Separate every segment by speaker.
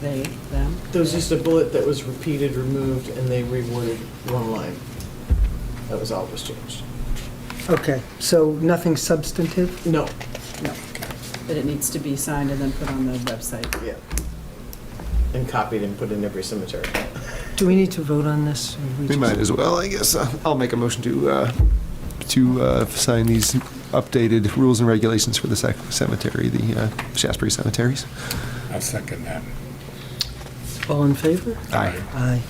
Speaker 1: They, them?
Speaker 2: There was just a bullet that was repeated, removed, and they reworded one line. That was all that was changed.
Speaker 3: Okay, so nothing substantive?
Speaker 2: No,
Speaker 1: No. But it needs to be signed and then put on the website.
Speaker 2: yeah. And copied and put in every cemetery.
Speaker 3: Do we need to vote on this? or
Speaker 4: We
Speaker 3: just-
Speaker 4: might as well, I guess. Uh, I'll make a motion to, uh, to uh, sign these updated rules and regulations for the sec- cemetery, the uh, Shasbury cemeteries.
Speaker 5: I'll second that.
Speaker 3: All in favor?
Speaker 4: Aye.
Speaker 3: Aye.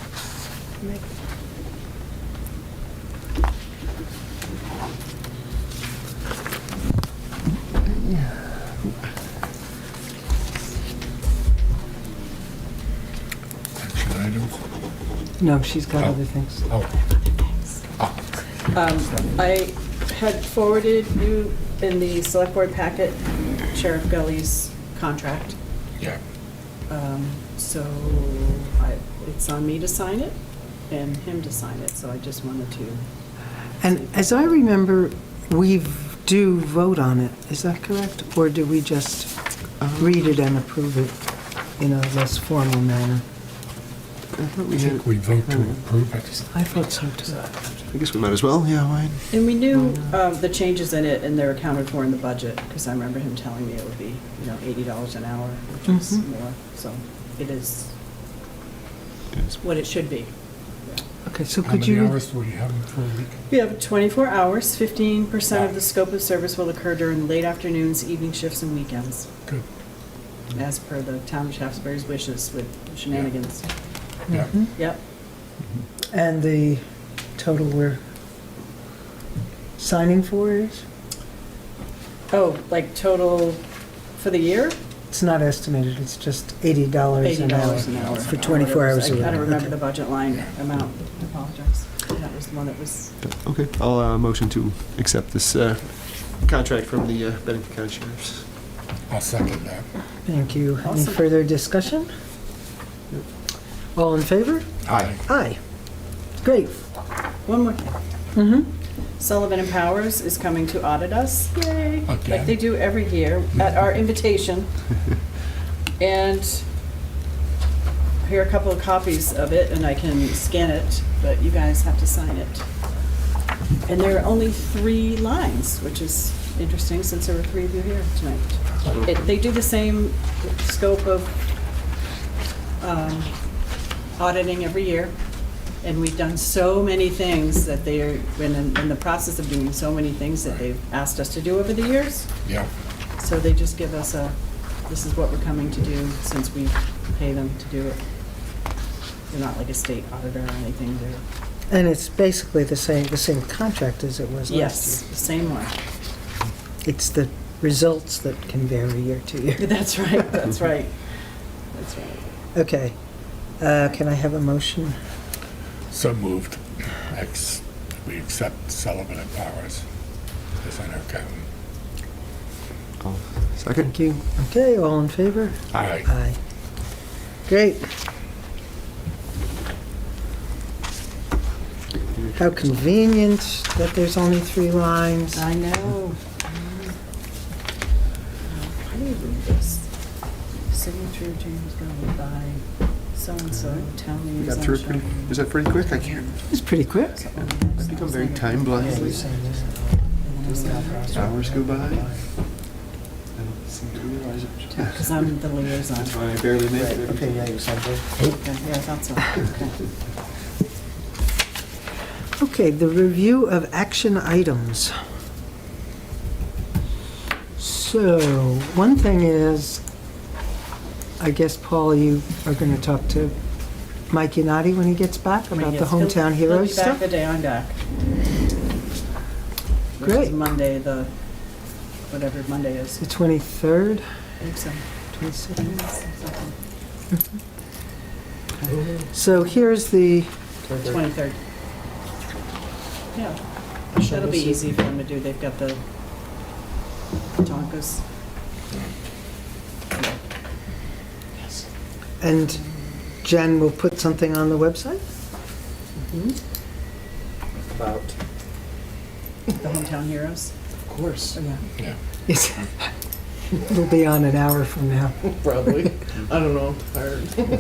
Speaker 5: Action item.
Speaker 3: No, she's got other things.
Speaker 5: Oh,
Speaker 1: Um, I had forwarded you in the select board packet Sheriff Gully's contract.
Speaker 5: yeah.
Speaker 1: Um, So I, it's on me to sign it and him to sign it, so I just wanted to,
Speaker 3: And as I remember, we do vote on it, is that correct? Or do we just read it and approve it in a less formal manner?
Speaker 4: Uh,
Speaker 5: I think we vote to approve it.
Speaker 3: I thought so too.
Speaker 4: I guess we might as well, yeah, why?
Speaker 1: and we knew um, the changes in it and they're accounted for in the budget, because I remember him telling me it would be, you know, eighty dollars an hour, which is
Speaker 3: Mhm.
Speaker 1: more, so it is what it should be.
Speaker 3: Okay, so
Speaker 5: How
Speaker 3: could
Speaker 5: many
Speaker 3: you?
Speaker 5: hours do we have for a week?
Speaker 1: We have 24 hours, 15% of the scope of service will occur during late afternoons, evening shifts, and weekends,
Speaker 5: Good,
Speaker 1: as per the town of Shaftesbury's wishes with shenanigans.
Speaker 5: yeah.
Speaker 3: Mm-hmm.
Speaker 1: Yep,
Speaker 3: And the total we're signing for is?
Speaker 1: oh, like total for the year?
Speaker 3: It's not estimated, it's just $80 an hour.
Speaker 1: $80 an hour.
Speaker 3: For
Speaker 1: or
Speaker 3: 24
Speaker 1: whatever. I
Speaker 3: hours a
Speaker 1: kind
Speaker 3: week.
Speaker 1: of remember the budget line amount, I apologize. That was the one that was,
Speaker 4: Okay, I'll uh, motion to accept this uh, contract from the uh, Bennington County Sheriff's.
Speaker 5: I'll second that.
Speaker 3: Thank you. Any
Speaker 1: Awesome.
Speaker 3: further discussion? All in favor?
Speaker 5: Aye.
Speaker 3: Aye. Great.
Speaker 1: one more thing.
Speaker 3: Mhm.
Speaker 1: Sullivan and Powers is coming to audit us, yay, like
Speaker 5: Again?
Speaker 1: they do every year, at our invitation. And here are a couple of copies of it, and I can scan it, but you guys have to sign it. And there are only three lines, which is interesting, since there were three of you here tonight. It- They do the same scope of um, auditing every year, and we've done so many things that they are, in, in the process of doing so many things that they've asked us to do over the years.
Speaker 5: Yeah,
Speaker 1: So they just give us a, this is what we're coming to do, since we pay them to do it. They're not like a state auditor or anything, they're,
Speaker 3: And it's basically the same, the same contract as it was
Speaker 1: yes,
Speaker 3: last
Speaker 1: the same one.
Speaker 3: year. It's the results that can vary year to year.
Speaker 1: That's right, that's right, that's right.
Speaker 3: Okay. Uh, Can I have a motion?
Speaker 5: so moved. Ex- We accept Sullivan and Powers as our accountant.
Speaker 4: Second?
Speaker 3: Thank you. Okay, all in favor?
Speaker 5: Aye.
Speaker 3: Aye. Great. How convenient that there's only three lines.
Speaker 1: I know. How do you read this? Signature James Gully by so-and-so, town
Speaker 4: We
Speaker 1: meeting.
Speaker 4: Uh-huh. got through it pretty, is that pretty quick? I can't,
Speaker 3: It's pretty quick.
Speaker 4: I think I'm very time blind. These Hours go by. I don't seem to realize it.
Speaker 1: Because I'm the liaison.
Speaker 4: That's why I barely made it.
Speaker 2: Okay, yeah, you signed it.
Speaker 1: Yeah, I thought so. Okay.
Speaker 3: Okay, the review of action items. So, one thing is, I guess, Paul, you are going to talk to Mike Yanati when he gets back about the
Speaker 1: Yes, he'll-
Speaker 3: hometown
Speaker 1: he'll
Speaker 3: heroes
Speaker 1: be back
Speaker 3: stuff?
Speaker 1: the day I'm back. Which is
Speaker 3: Great.
Speaker 1: Monday, the, whatever Monday is.
Speaker 3: The 23rd,
Speaker 1: I think so.
Speaker 3: 22nd?
Speaker 1: Something.
Speaker 3: So here's the,
Speaker 1: 23rd. Yeah, that'll be easy for them to do. They've got the Tonkas.
Speaker 3: and Jen will put something on the website?
Speaker 2: About,
Speaker 1: The hometown heroes.
Speaker 2: of course.
Speaker 1: Yeah.
Speaker 5: Yeah,
Speaker 3: Yes. We'll be on an hour from now.
Speaker 2: probably. I don't know. Our-